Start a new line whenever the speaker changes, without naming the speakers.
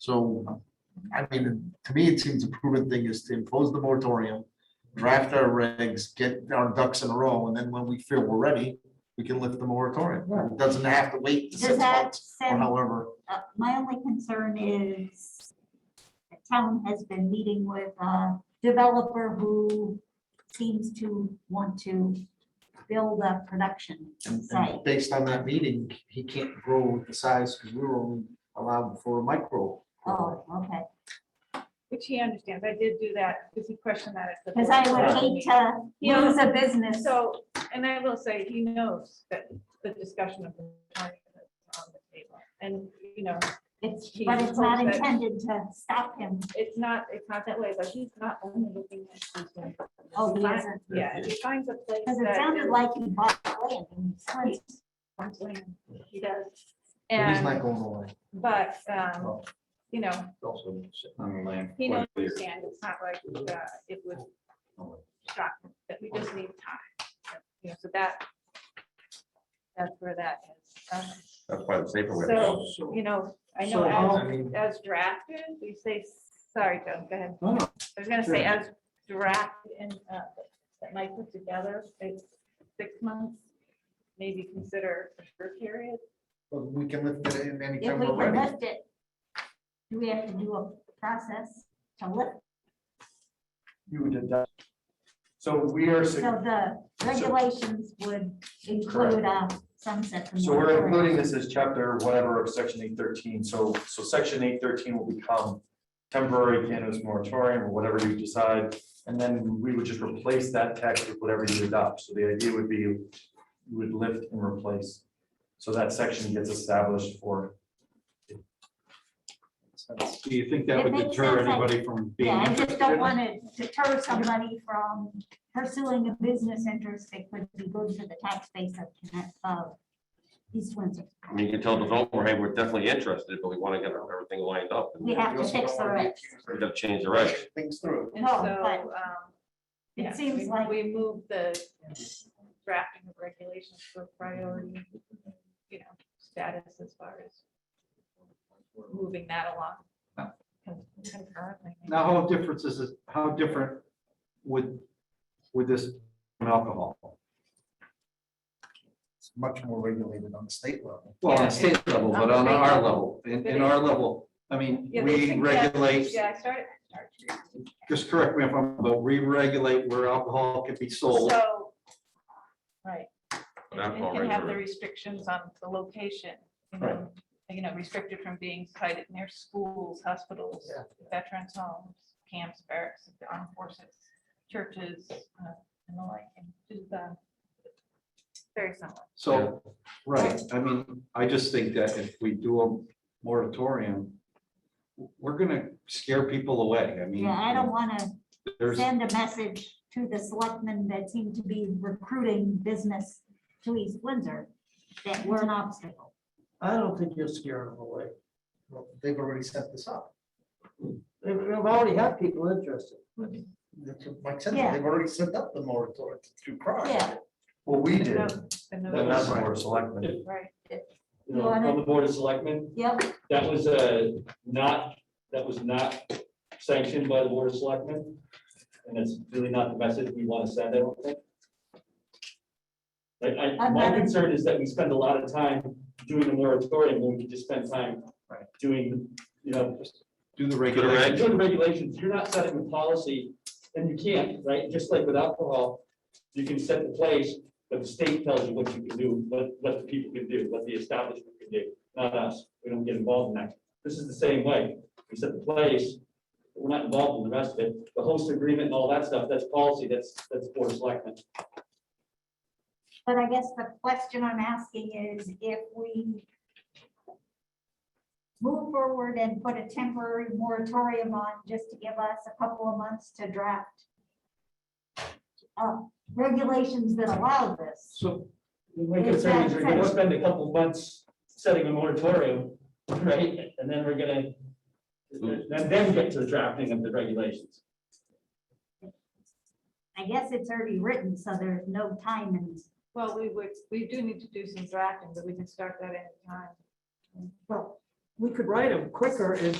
So, I mean, to me, it seems a prudent thing is to impose the moratorium, draft our regs, get our ducks in a row, and then when we feel we're ready, we can lift the moratorium. It doesn't have to wait to
Does
six
that
months or
send,
however.
uh, my only concern is the town has been meeting with a developer who seems to want to build a production
And
site.
and based on that meeting, he can't grow the size because we were only allowed for a micro.
Oh, okay.
Which he understands. I did do that because he questioned that. at the
Because I
board
would hate
meeting.
to
You know,
lose a business.
So, and I will say, he knows that the discussion of the target is on the table. And, you know,
It's,
He
but it's not
hopes that-
intended to stop him.
it's not, it's not that way, but he's not only looking at. these things.
Oh, he
Fine,
isn't.
Yeah, if he finds a place
Because it
that
sounded
is-
like he bought land and he slipped.
something he does.
But He's not
And,
going away.
but, um,
Oh,
you know,
also sitting on the land.
he knows,
quite clear.
it's not like, uh, it would shock, that we just need time. You know, so that, that's where that is. Um,
That's why the safer way. to
So,
go.
you know, I
So,
know
I mean-
as, as drafted, we say, sorry, Joan, go ahead.
No, no.
I was gonna say as drafted and, uh, that Mike put together, it's six months, maybe consider a short period.
But we can lift it in any
If
time
we
we're
can
ready.
lift it, do we have to do a process to lift?
you would deduct. So we are,
So
sug-
the regulations would include a sunset.
so we're including this as chapter whatever of section eight thirteen, so, so section eight thirteen will become temporary cannabis moratorium or whatever you decide, and then we would just replace that text with whatever you adopt, so the idea would be you would lift and replace. So that section gets established for,
Do you think that
It
would
makes
deter
sense, I-
anybody from being?
Yeah, I just don't
interested?
want to deter somebody from pursuing a business interest that could be good for the tax base of, Conne- of East Windsor.
I mean, you can tell the developer, hey, we're definitely interested, but we want to get everything lined up. and
We have
We
to
also
fix
don't
the
wanna be
regs.
accused
We
of
gotta change the regs.
Things through.
And
No,
so,
but
um,
it
yeah,
seems
we-
like-
We move the drafting of regulations for priority, you know, status as far as moving that along. con- concurrently.
Now, how different is it, how different would, would this from alcohol?
It's much more regulated on the state level.
Well, on
Yeah.
a state level, but on our level, in, in our level, I mean,
Yeah, they
we
think that-
regulate,
Yeah, I started.
just correct me if I'm, but we regulate where alcohol can be sold.
So. Right.
But
And
alcohol
can
regs
have
are-
the restrictions on the location, you
Right.
know, you know, restricted from being cited near schools, hospitals,
Yeah.
veterans homes, camps, barracks, the armed forces, churches, uh, and the like, and just, uh, very similar.
So, right, I mean, I just think that if we do a moratorium, we're gonna scare people away. I mean.
Yeah, I don't want to
There's,
send a message to the selectmen that seem to be recruiting business to East Windsor that we're an obstacle.
I don't think you're scaring them away.
Well, They've already set this up.
They've, they've already had people interested.
That's what Mike said,
Yeah.
they've already set up the moratorium through crime.
Yeah.
well, we did,
No,
and
and no-
not the board of selectmen.
Oh, Right,
you
You
know,
wanna-
on the board of selectmen,
Yep,
that was uh not, that was not sanctioned by the board of selectmen. And that's really not the message we want to send, I don't think. Like, I,
I'm
my
not-
concern is that we spend a lot of time doing the moratorium when we could just spend time doing, you know,
do the
the
regulations.
reg-
you're doing regulations, you're not setting the policy, and you can't, right? Just like with alcohol, you can set the place, but the state tells you what you can do, what, what the people can do, what the establishment can do, not us. We don't get involved in that. This is the same way. We set the place, but we're not involved in the rest of it. The host agreement and all that stuff, that's policy, that's, that's board of selectmen.
but I guess the question I'm asking is if we move forward and put a temporary moratorium on just to give us a couple of months to draft uh, regulations that allow this.
So my concern is we're gonna spend a couple months setting a moratorium, right? And then we're gonna, and then get to the drafting of the regulations.
I guess it's already written, so there's no time and,
well, we would, we do need to do some drafting, but we can start that anytime.
Well, we could write them quicker and